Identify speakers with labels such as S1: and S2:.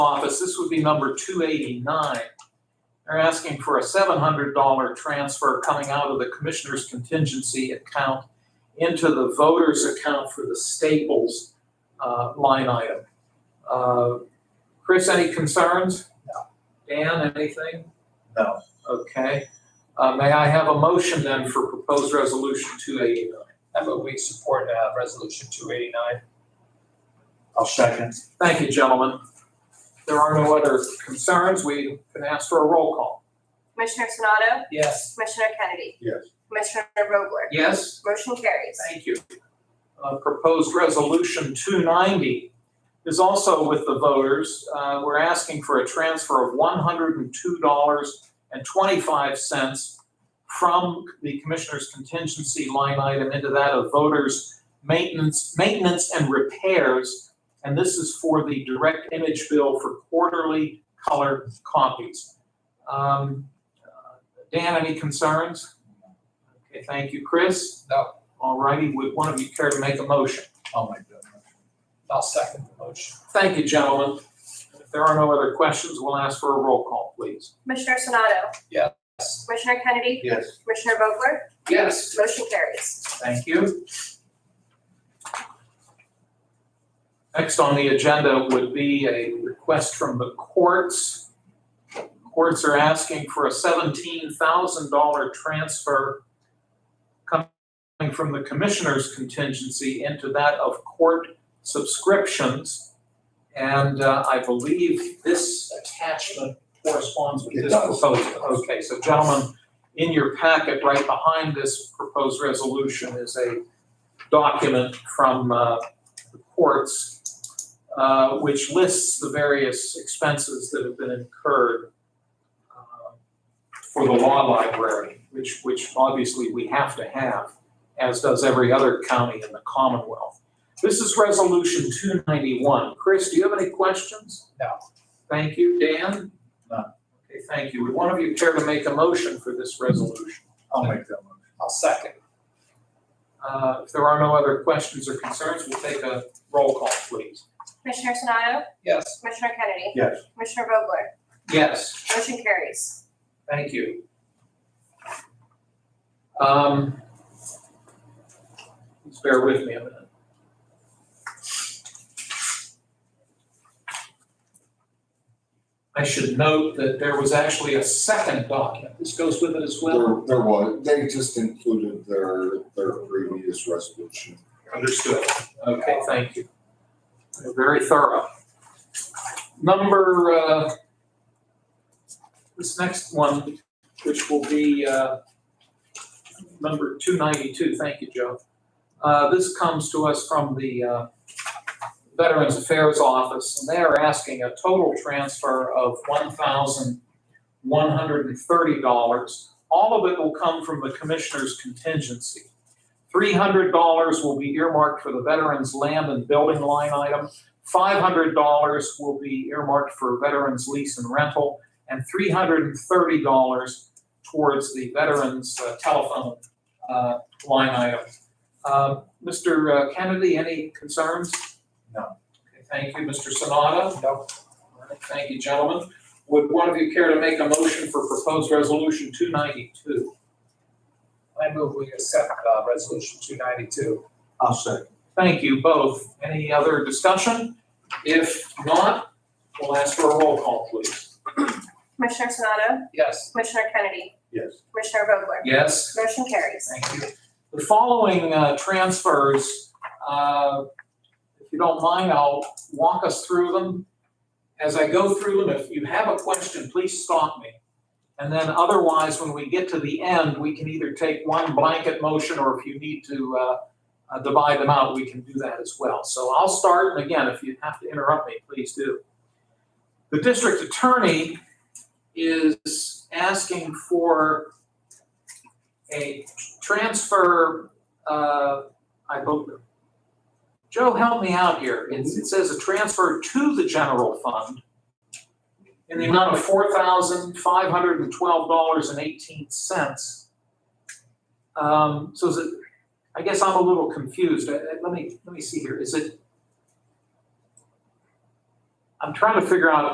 S1: office, this would be number two eighty-nine. They're asking for a seven hundred dollar transfer coming out of the commissioner's contingency account into the voter's account for the Staples, uh, line item. Uh, Chris, any concerns? No. Dan, anything?
S2: No.
S1: Okay. Uh, may I have a motion then for proposed resolution two eighty-nine?
S3: I move we support uh, Resolution 289.
S2: I'll second.
S1: Thank you, gentlemen. There are no other concerns. We can ask for a roll call.
S4: Commissioner Sonato?
S3: Yes.
S4: Commissioner Kennedy?
S2: Yes.
S4: Commissioner Vogler?
S1: Yes?
S4: Motion carries.
S1: Thank you. Uh, Proposed Resolution 290 is also with the voters. Uh, We're asking for a transfer of $102.25 from the Commissioner's contingency line item into that of voters' maintenance, maintenance and repairs. And this is for the direct image bill for quarterly color copies. Um, uh, Dan, any concerns? Okay, thank you. Chris? All righty, would one of you care to make a motion?
S2: I'll make that motion.
S3: I'll second the motion.
S1: Thank you, gentlemen. If there are no other questions, we'll ask for a roll call, please.
S4: Commissioner Sonato?
S3: Yes.
S4: Commissioner Kennedy?
S2: Yes.
S4: Commissioner Vogler?
S1: Yes.
S4: Motion carries.
S1: Thank you. Next on the agenda would be a request from the courts. Courts are asking for a seventeen thousand dollar transfer coming from the commissioner's contingency into that of court subscriptions. And uh, I believe this attachment corresponds with
S2: It
S1: this
S2: does.
S1: proposal. Okay, so gentlemen, in your packet, right behind this proposed resolution is a document from uh, the courts, uh, which lists the various expenses that have been incurred uh, for the law library, which, which obviously we have to have, as does every other county in the Commonwealth. This is Resolution 291. Chris, do you have any questions?
S3: No.
S1: Thank you. Dan?
S2: None.
S1: Okay, thank you. Would one of you care to make a motion for this resolution?
S2: I'll make that motion.
S3: I'll second.
S1: Uh, If there are no other questions or concerns, we'll take a roll call, please.
S4: Commissioner Sonato?
S3: Yes.
S4: Commissioner Kennedy?
S2: Yes.
S4: Commissioner Vogler?
S1: Yes.
S4: Motion carries.
S1: Thank you. Um, Please bear with me a minute. I should note that there was actually a second document. This goes with it as well?
S5: There, there was, they just included their, their previous resolution.
S1: Understood. Okay, thank you. They're Very thorough. Number, uh, this next one, which will be, uh, number two ninety-two, thank you, Joe. Uh, this comes to us from the, uh, Veterans Affairs Office, and they are asking a total transfer of one thousand one hundred and thirty dollars. All of it will come from the commissioner's contingency. Three hundred dollars will be earmarked for the veterans' land and building line item. Five hundred dollars will be earmarked for veterans' lease and rental, and three hundred and thirty dollars towards the veterans' uh, telephone uh, line item. Uh, Mr. Kennedy, any concerns?
S2: No.
S1: Okay, Thank you, Mr. Sonata.
S3: No.
S1: All right, Thank you, gentlemen. Would one of you care to make a motion for proposed resolution two ninety-two?
S3: I move we accept uh, Resolution 292.
S2: I'll second.
S1: Thank you both. Any other discussion? If not, we'll ask for a roll call, please.
S4: Commissioner Sonato?
S3: Yes.
S4: Commissioner Kennedy?
S2: Yes.
S4: Commissioner Vogler?
S1: Yes.
S4: Motion carries.
S1: Thank you. The following uh, transfers, uh, if you don't mind, I'll walk us through them. As I go through them, if you have a question, please stop me. And then otherwise, when we get to the end, we can either take one blanket motion or if you need to uh, uh, divide them out, we can do that as well. So I'll start, and again, if you have to interrupt me, please do. The district attorney is asking for a transfer, uh, I believe, Joe, help me out here. It, it says a transfer to the general fund in the amount of four thousand five hundred and twelve dollars and eighteen cents. Um, so is it, I guess I'm a little confused. Uh, uh, Let me, let me see here. Is it? I'm trying to figure out